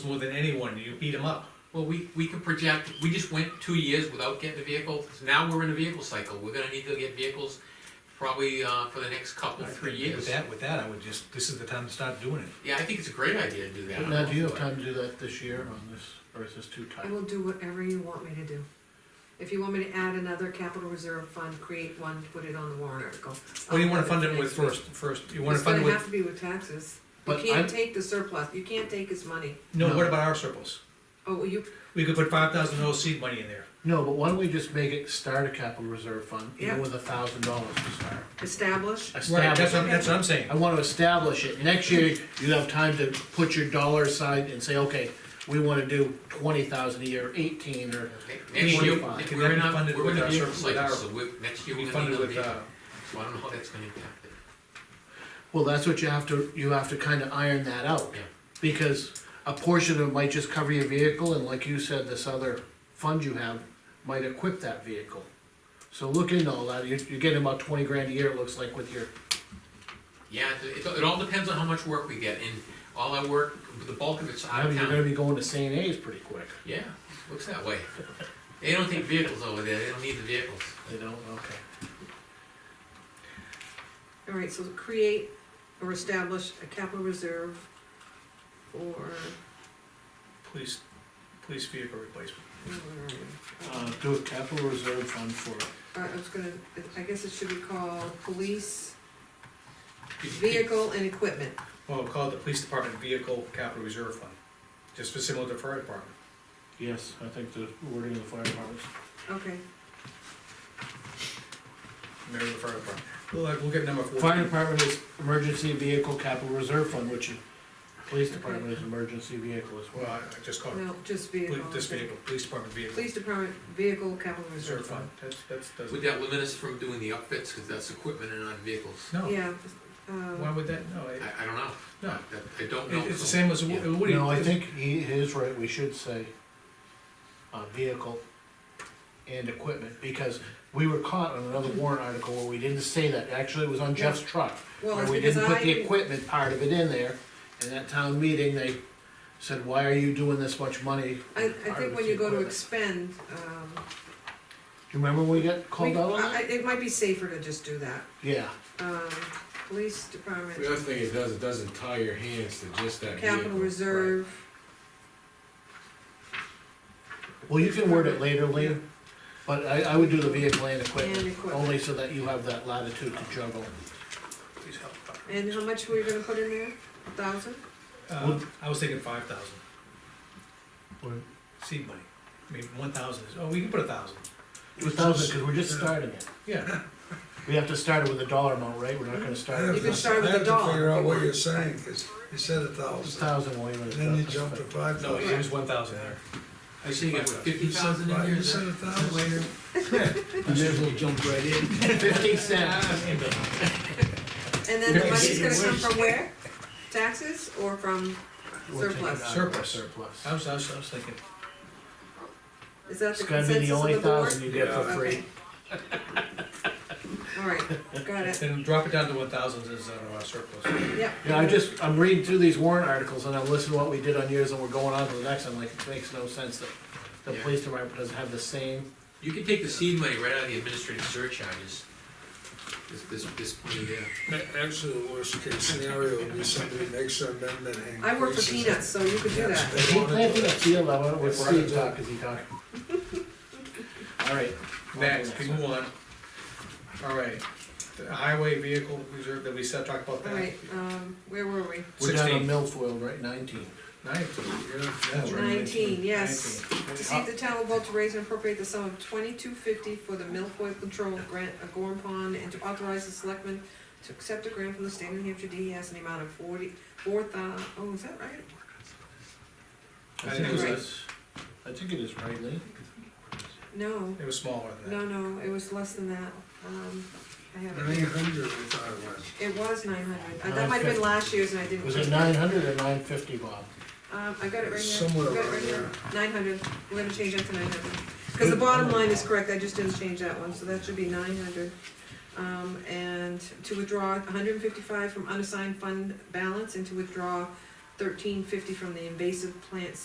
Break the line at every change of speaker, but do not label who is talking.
more than anyone, you beat them up.
Well, we, we can project, we just went two years without getting a vehicle, now we're in a vehicle cycle, we're gonna need to get vehicles probably, uh, for the next couple, three
With
years.
that, with that, I would just, this is the time to start doing it.
Yeah, I think it's a great idea to do that.
But now, do you have time to do that this year on this, or is this too
I
tight?
will do whatever you want me to do. If you want me to add another capital reserve fund, create one, put it on the warrant article.
What do Oh, you wanna
I'll
fund
do
it with
next week.
first, first, you wanna fund it
It's gonna
with,
have to be with taxes. You
But I'm-
can't take the surplus, you can't take his money.
no, what about our surplus?
Oh, well, you,
We could put five thousand OC money in there.
No, but why don't we just make it start a capital reserve fund,
Yeah.
even with a thousand dollars to start?
establish,
Right, that's what,
Establish,
that's what I'm saying.
I wanna establish it, next year, you have time to put your dollar aside and say, okay, we wanna do twenty thousand a year, eighteen, or,
Okay, Next year,
Twenty-five.
if
Can
we're
that be
not,
funded
we're
with
in a
our
vehicle
surplus, with
cycle,
our-
so we, next year
Be
we're gonna need
funded with,
another vehicle,
uh,
so I don't know how that's gonna impact it.
well, that's what you have to, you have to kinda iron that out.
Yeah.
Because a portion of it might just cover your vehicle, and like you said, this other fund you have might equip that vehicle. So look into all that, you're, you're getting about twenty grand a year, it looks like, with your
Yeah, it, it- it all depends on how much work we get, and all our work, the bulk of it's
I
out
mean,
of
you're gonna
town.
be going to St. A's pretty quick,
Yeah, looks that way. They don't take vehicles over there, they don't need the vehicles.
you know, okay.
all right, so create or establish a capital reserve for,
Police, police vehicle replacement.
where are we?
Uh, do a capital reserve fund for,
All right, I was gonna, I guess it should be called police
Could you- could-
vehicle and equipment.
Well, we'll call it the police department vehicle capital reserve fund, just for similar to fire department.
yes, I think the wording of the fire department.
Okay,
Remember the fire department. We'll, like, we'll get number four.
Fire department is emergency vehicle capital reserve fund, which is, police department is emergency vehicle as
Well,
well.
I I just called it,
no, just
poli-
vehicle.
this
okay.
vehicle, police department vehicle
Police department vehicle capital
reserve
reserve
fund.
fund.
That's, that's,
Would
doesn't,
that limit us from doing the upfits, cause that's equipment and not vehicles?
no,
Yeah,
why
uh,
would that, no, it-
I, I don't know.
No.
I- I don't know.
it- it's the same as,
Yeah.
Woody.
No, I think he is right, we should say, uh, vehicle and equipment, because we were caught on another warrant article where we didn't say that, actually, it was on Jeff's truck.
well,
Where
it's
we
because
didn't put the
I,
equipment part of it in there, and at town meeting, they said, why are you doing this much money?
I,
Part
I
of
think
it's
when you go to
equipment."
expend, um.
Do you remember when we got called
we-
out on
I- I-
that?
It might be safer to just do that,
Yeah,
um, police department,
The other thing it does, it doesn't tie your hands to just that vehicle.
capital reserve.
well, you can word it later, Lean, but I, I would do the vehicle and
And
equipment,
equipment.
only so that you have that latitude to juggle.
Please help.
And how much were you gonna put in there, a thousand?
Uh, I was thinking five thousand. Seed money, I mean, one thousand is, oh, we can put a thousand,
Two thousand, cause we're just starting it.
yeah.
We have to start it with a dollar amount, right? We're not gonna start it
You
with
can
a
start with a
I have to figure
dollar.
out what you're saying, because you said a thousand,
thousand, wait a minute.
then you jumped to five
No,
thousand.
it was one thousand there.
I think it was fifty
You said
thousand in
five,
here,
you
is
said
that?
a thousand.
Fifty
Ah,
cents.
And then the money's gonna come from where? Taxes or from
We'll take it out of
surplus? Um,
our
Surplus.
Surplus.
I was, I was, I was thinking,
Is that
It's
the
gonna be
consensus
the
of
only
the
thousand you
board?
get for
Okay.
free.
All right, got it,
then drop it down to one thousand is uh, our surplus.
yep.
Yeah, I just, I'm reading through these warrant articles and I'm listening to what we did on yours and we're going on to the next one, like, it makes no sense that the
Yeah.
police department doesn't have the same.
You can take the seed money right out of the administrative surcharges. This, this, this money there.
A- Actually, the worst case scenario would be somebody makes an amendment and increases.
I work for
it.
peanuts, so you could do that.
They
He
wanna do
planted a
it.
field, I want, what's
If we're on
Steve
the-
talk, is he talking? Alright.
Next, we move on. All right, the highway vehicle reserve that we said, talk about
All
that.
right, um, where were we?
We're down on
16.
milfoil, right, nineteen.
Nineteen, yeah, that's right.
Nineteen, yes.
19.
To see if the town will vote to raise and appropriate the sum of twenty-two fifty for the Milfoil Control Grant of Gorm Pond and to authorize the selectmen to accept a grant from the state of New Hampshire DES in the amount of forty, four thou, oh, is that right?
I think it was,
Right.
less-
I think it is right, Lee.
No,
it was smaller than
no,
that.
no, it was less than that. Um, I have it.
Nine hundred we thought it was.
It was nine hundred. Uh, That might have been last year's and I didn't.
Was it nine hundred or nine fifty, Bob?
Um, I got it right here.
Somewhere
I've got it
around
right here. Nine hundred, we're gonna change that to nine hundred. Cause the bottom line is correct, I just didn't change that one, so that should be nine hundred. Um, and to withdraw hundred and fifty-five from unassigned fund balance and to withdraw thirteen fifty from the invasive plants